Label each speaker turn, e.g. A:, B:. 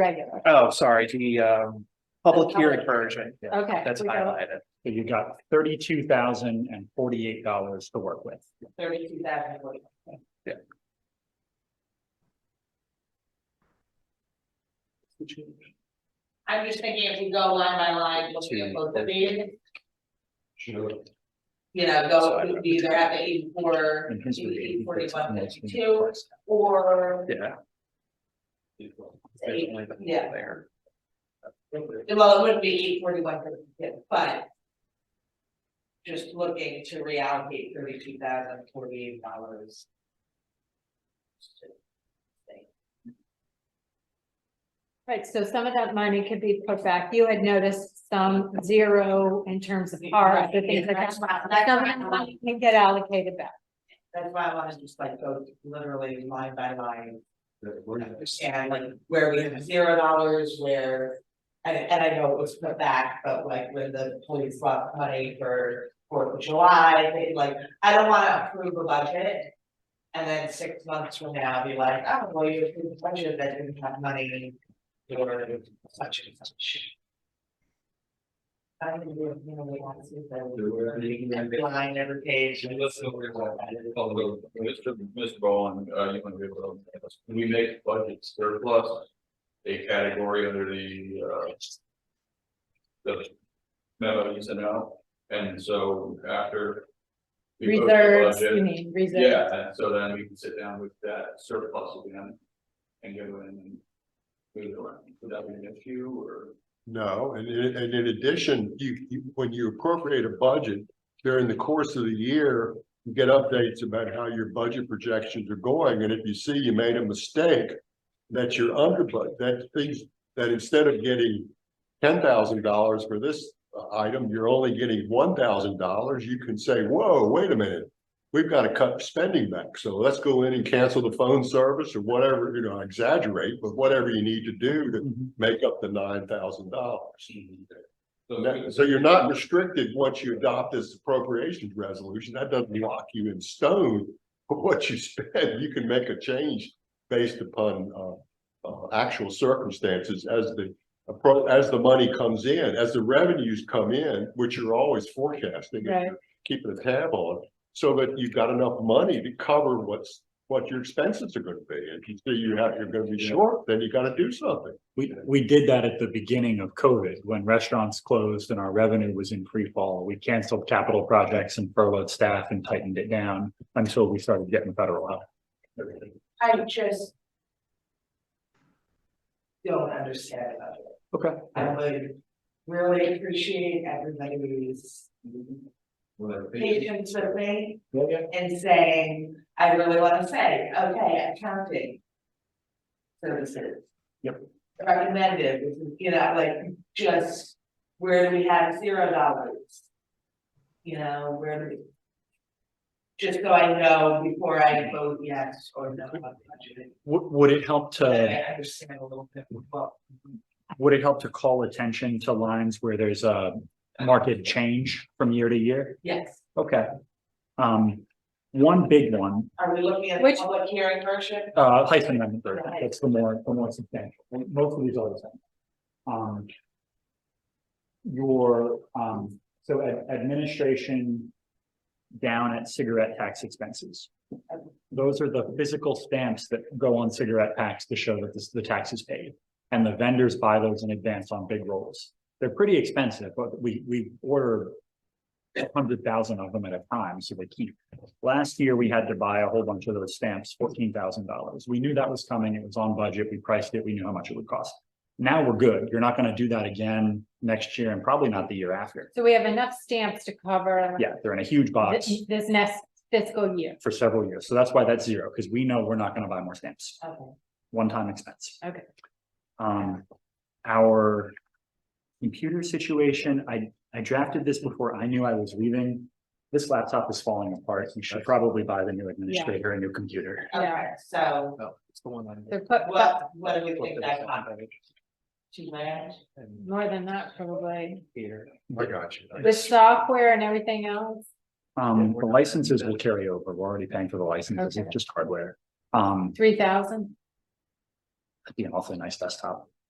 A: regular,
B: Oh, sorry, the um public hearing version,
A: okay.
B: that's
A: we go
B: highlighted.
C: So you got thirty-two thousand and forty-eight dollars to work with.
D: thirty-two thousand. I'm just thinking if we go line by line, looking at both of these, you know, go, we either have the eighty-four,
C: And his rate,
D: eighty-eight, forty-one,
C: it's- it's-
D: fifty-two, or,
B: Yeah. Definitely the-
D: Yeah.
B: There.
D: well, it wouldn't be eight forty-one, fifty-two, but just looking to reallocate thirty-two thousand, forty-eight dollars.
A: Right, so some of that money could be put back. You had noticed some zero in terms of cars, the things like that.
D: That's why- that's
A: Some
D: why
A: of that
D: I'm-
A: money Can get allocated back.
D: That's why I want to just like go literally line by line
B: Yeah.
D: and like where we have zero dollars where. And and I know it was put back, but like when the police lost money for Fourth of July, they like, I don't wanna approve a budget. And then six months from now, be like, oh, well, you approved a budget that didn't have money. for such and such. I don't think we really want to see that. Line every page.
E: Actually, let's go over that. Although, Mr. Mr. Bowen, uh, you want to be able to, when we make budget surplus, a category under the, uh, the memo you sent out, and so after we vote the
A: Reserves,
E: budget-
A: you mean, reserves.
E: Yeah, and so then we can sit down with that surplus again and go in and move it around. Would that be an issue or?
F: No, and in, and in addition, you, you, when you appropriate a budget, during the course of the year, you get updates about how your budget projections are going, and if you see you made a mistake, that you're under, but that things, that instead of getting ten thousand dollars for this uh, item, you're only getting one thousand dollars, you can say, whoa, wait a minute, we've got to cut spending back, so let's go in and cancel the phone service or whatever, you know, I exaggerate, but whatever you need to do to make up the nine thousand dollars.
E: So
F: So you're not restricted once you adopt this appropriations resolution. That doesn't lock you in stone. But what you spend, you can make a change based upon uh uh actual circumstances as the appro- as the money comes in, as the revenues come in, which you're always forecasting.
A: Right.
F: Keeping a tab on, so that you've got enough money to cover what's what your expenses are gonna be. And if you see you have, you're gonna be short, then you gotta do something.
C: We, we did that at the beginning of COVID, when restaurants closed and our revenue was in free fall. We canceled capital projects and furloughed staff and tightened it down until we started getting federal help.
D: I just. Don't understand about it.
C: Okay.
D: I would really appreciate everybody's patience with me and saying, I really wanna say, okay, accounting. Services.
C: Yep.
D: Recommended, you know, like, just where do we have zero dollars? You know, where do we? Just so I know before I vote yes or no on the budget.
C: Would, would it help to?
D: I understand a little bit, but.
C: Would it help to call attention to lines where there's a market change from year to year?
D: Yes,
C: Okay. Um, one big one,
D: are we looking at the
A: Which-
D: public hearing version?
C: uh, Heisman Amendment, third, that's the more, the more substantial, most of these are the same. Um. Your, um, so ad- administration down at cigarette tax expenses. Those are the physical stamps that go on cigarette packs to show that this, the tax is paid. And the vendors buy those in advance on big rolls. They're pretty expensive, but we, we order a hundred thousand of them at a time, so they keep. Last year, we had to buy a whole bunch of those stamps, fourteen thousand dollars. We knew that was coming. It was on budget. We priced it. We knew how much it would cost. Now we're good. You're not gonna do that again next year and probably not the year after.
A: So we have enough stamps to cover
C: Yeah, they're in a huge box
A: thi- this next fiscal year.
C: for several years. So that's why that's zero, because we know we're not gonna buy more stamps.
D: Okay.
C: One-time expense.
A: Okay.
C: Um, our computer situation, I, I drafted this before I knew I was leaving. This laptop is falling apart. You should probably buy the new administrator, a new computer.
D: Okay, so
B: No, Oh, it's the one on.
A: They're put, but
D: what, what do we think that cost to land?
B: And
A: more than that probably.
B: Peter.
F: I got you.
A: The software and everything else.
C: Um, the licenses will carry over. We're already paying for the licenses,
A: Okay.
C: it's just hardware. Um,
A: Three thousand?
C: it'd be an awfully nice desktop.